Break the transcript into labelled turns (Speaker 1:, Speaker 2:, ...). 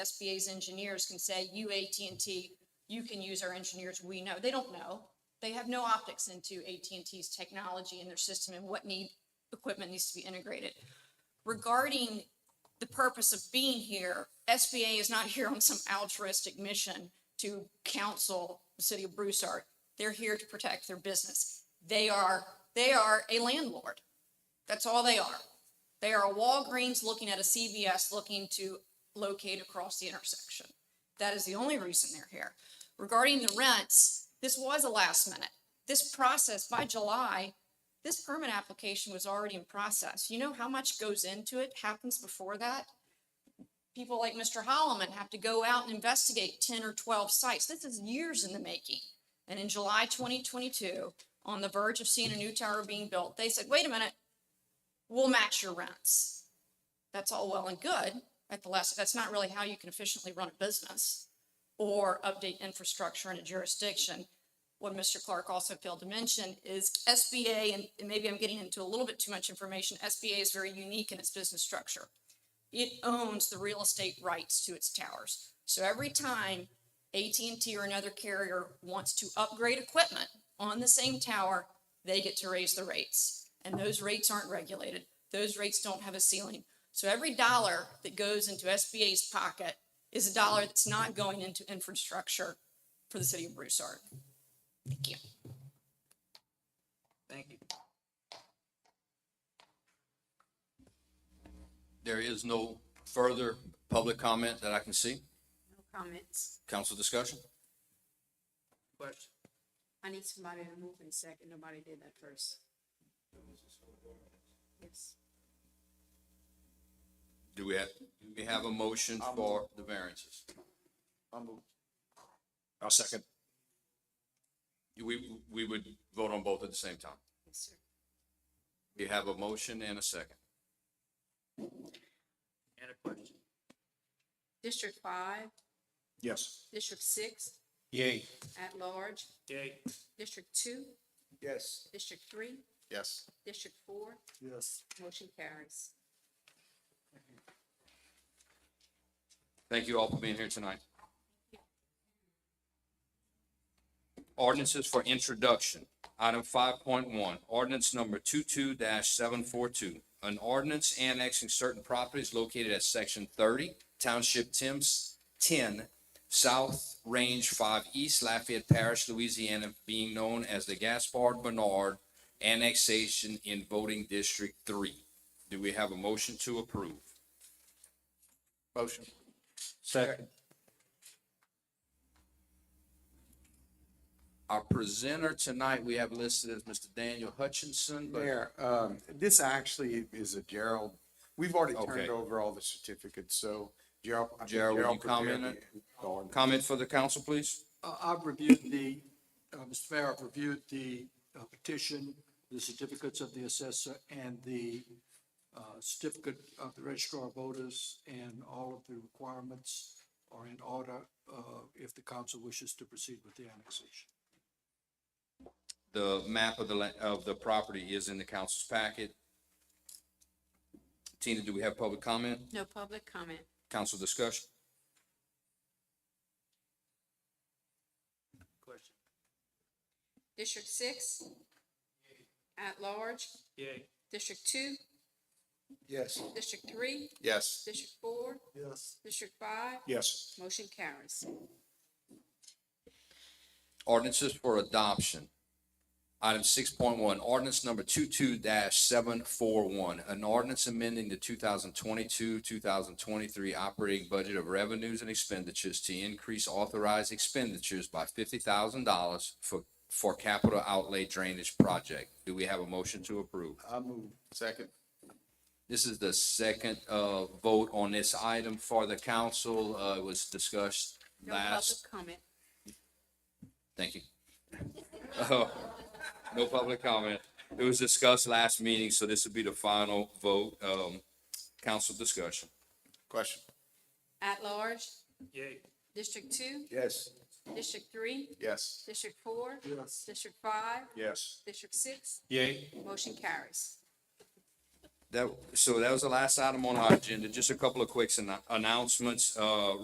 Speaker 1: SBA's engineers can say, you AT&T, you can use our engineers, we know. They don't know. They have no optics into AT&T's technology and their system and what need, equipment needs to be integrated. Regarding the purpose of being here, SBA is not here on some altruistic mission to counsel the city of Broussard. They're here to protect their business. They are, they are a landlord. That's all they are. They are a Walgreens looking at a CVS looking to locate across the intersection. That is the only reason they're here. Regarding the rents, this was a last minute. This process by July, this permit application was already in process. You know how much goes into it, happens before that? People like Mr. Holloman have to go out and investigate ten or twelve sites. This is years in the making. And in July twenty twenty-two, on the verge of seeing a new tower being built, they said, wait a minute, we'll match your rents. That's all well and good at the last, that's not really how you can efficiently run a business or update infrastructure in a jurisdiction. What Mr. Clark also failed to mention is SBA, and and maybe I'm getting into a little bit too much information, SBA is very unique in its business structure. It owns the real estate rights to its towers. So every time AT&T or another carrier wants to upgrade equipment on the same tower, they get to raise the rates. And those rates aren't regulated. Those rates don't have a ceiling. So every dollar that goes into SBA's pocket is a dollar that's not going into infrastructure for the city of Broussard. Thank you.
Speaker 2: Thank you. There is no further public comment that I can see.
Speaker 3: No comments.
Speaker 2: Council discussion? Question?
Speaker 3: I need somebody to move in second. Nobody did that first. Yes.
Speaker 2: Do we have, do we have a motion for the variances?
Speaker 4: I'll second.
Speaker 2: We, we would vote on both at the same time.
Speaker 3: Yes, sir.
Speaker 2: We have a motion and a second. And a question.
Speaker 3: District five,
Speaker 4: Yes.
Speaker 3: district six,
Speaker 4: Yay.
Speaker 3: at large.
Speaker 4: Yay.
Speaker 3: District two,
Speaker 4: Yes.
Speaker 3: district three,
Speaker 4: Yes.
Speaker 3: district four,
Speaker 4: Yes.
Speaker 3: motion carries.
Speaker 2: Thank you all for being here tonight. Ordinances for introduction. Item five point one, ordinance number 22 seven four two. An ordinance annexing certain properties located at section thirty, township Tim's ten, south range five east Lafayette Parish, Louisiana, being known as the Gaspard Bernard annexation in voting district three. Do we have a motion to approve? Motion.
Speaker 4: Second.
Speaker 2: Our presenter tonight, we have listed as Mr. Daniel Hutchinson, but
Speaker 5: Mayor, um, this actually is a Gerald, we've already
Speaker 2: Okay.
Speaker 5: turned over all the certificates, so Gerald. I think
Speaker 2: Gerald, will you
Speaker 5: prepared
Speaker 2: comment
Speaker 5: the- on-
Speaker 2: comment for the council, please?
Speaker 6: Uh, I've reviewed the, uh, Mr. Mayor, I've reviewed the uh, petition, the certificates of the assessor and the uh, certificate of the registrar of voters and all of the requirements are in order uh, if the council wishes to proceed with the annexation.
Speaker 2: The map of the, la- of the property is in the council's packet. Tina, do we have public comment,
Speaker 3: No public comment.
Speaker 2: council discussion?
Speaker 6: Question.
Speaker 3: District six, at large.
Speaker 6: Yay.
Speaker 3: District two,
Speaker 4: Yes.
Speaker 3: district three,
Speaker 5: Yes,
Speaker 3: district four,
Speaker 6: Yes.
Speaker 3: district five,
Speaker 4: Yes.
Speaker 3: motion carries.
Speaker 2: Ordinances for adoption. Item six point one, ordinance number 22 seven four one, an ordinance amending the two thousand twenty-two, two thousand twenty-three operating budget of revenues and expenditures to increase authorized expenditures by fifty thousand dollars for, for capital outlay drainage project. Do we have a motion to approve?
Speaker 4: I move.
Speaker 5: second,
Speaker 2: This is the second, uh, vote on this item for the council. Uh, it was discussed
Speaker 3: No
Speaker 2: last
Speaker 3: public comment.
Speaker 2: Thank you. Oh, no public comment. It was discussed last meeting, so this will be the final vote, um, council discussion.
Speaker 5: question,
Speaker 3: At large. Yay. District two,
Speaker 4: Yes.
Speaker 3: district three,
Speaker 5: yes.
Speaker 3: district four,
Speaker 6: Yes.
Speaker 3: district five,
Speaker 4: Yes.
Speaker 3: district six,
Speaker 4: Yay.
Speaker 3: motion carries.
Speaker 2: That, so that was the last item on our agenda. Just a couple of quick annou- announcements. Uh,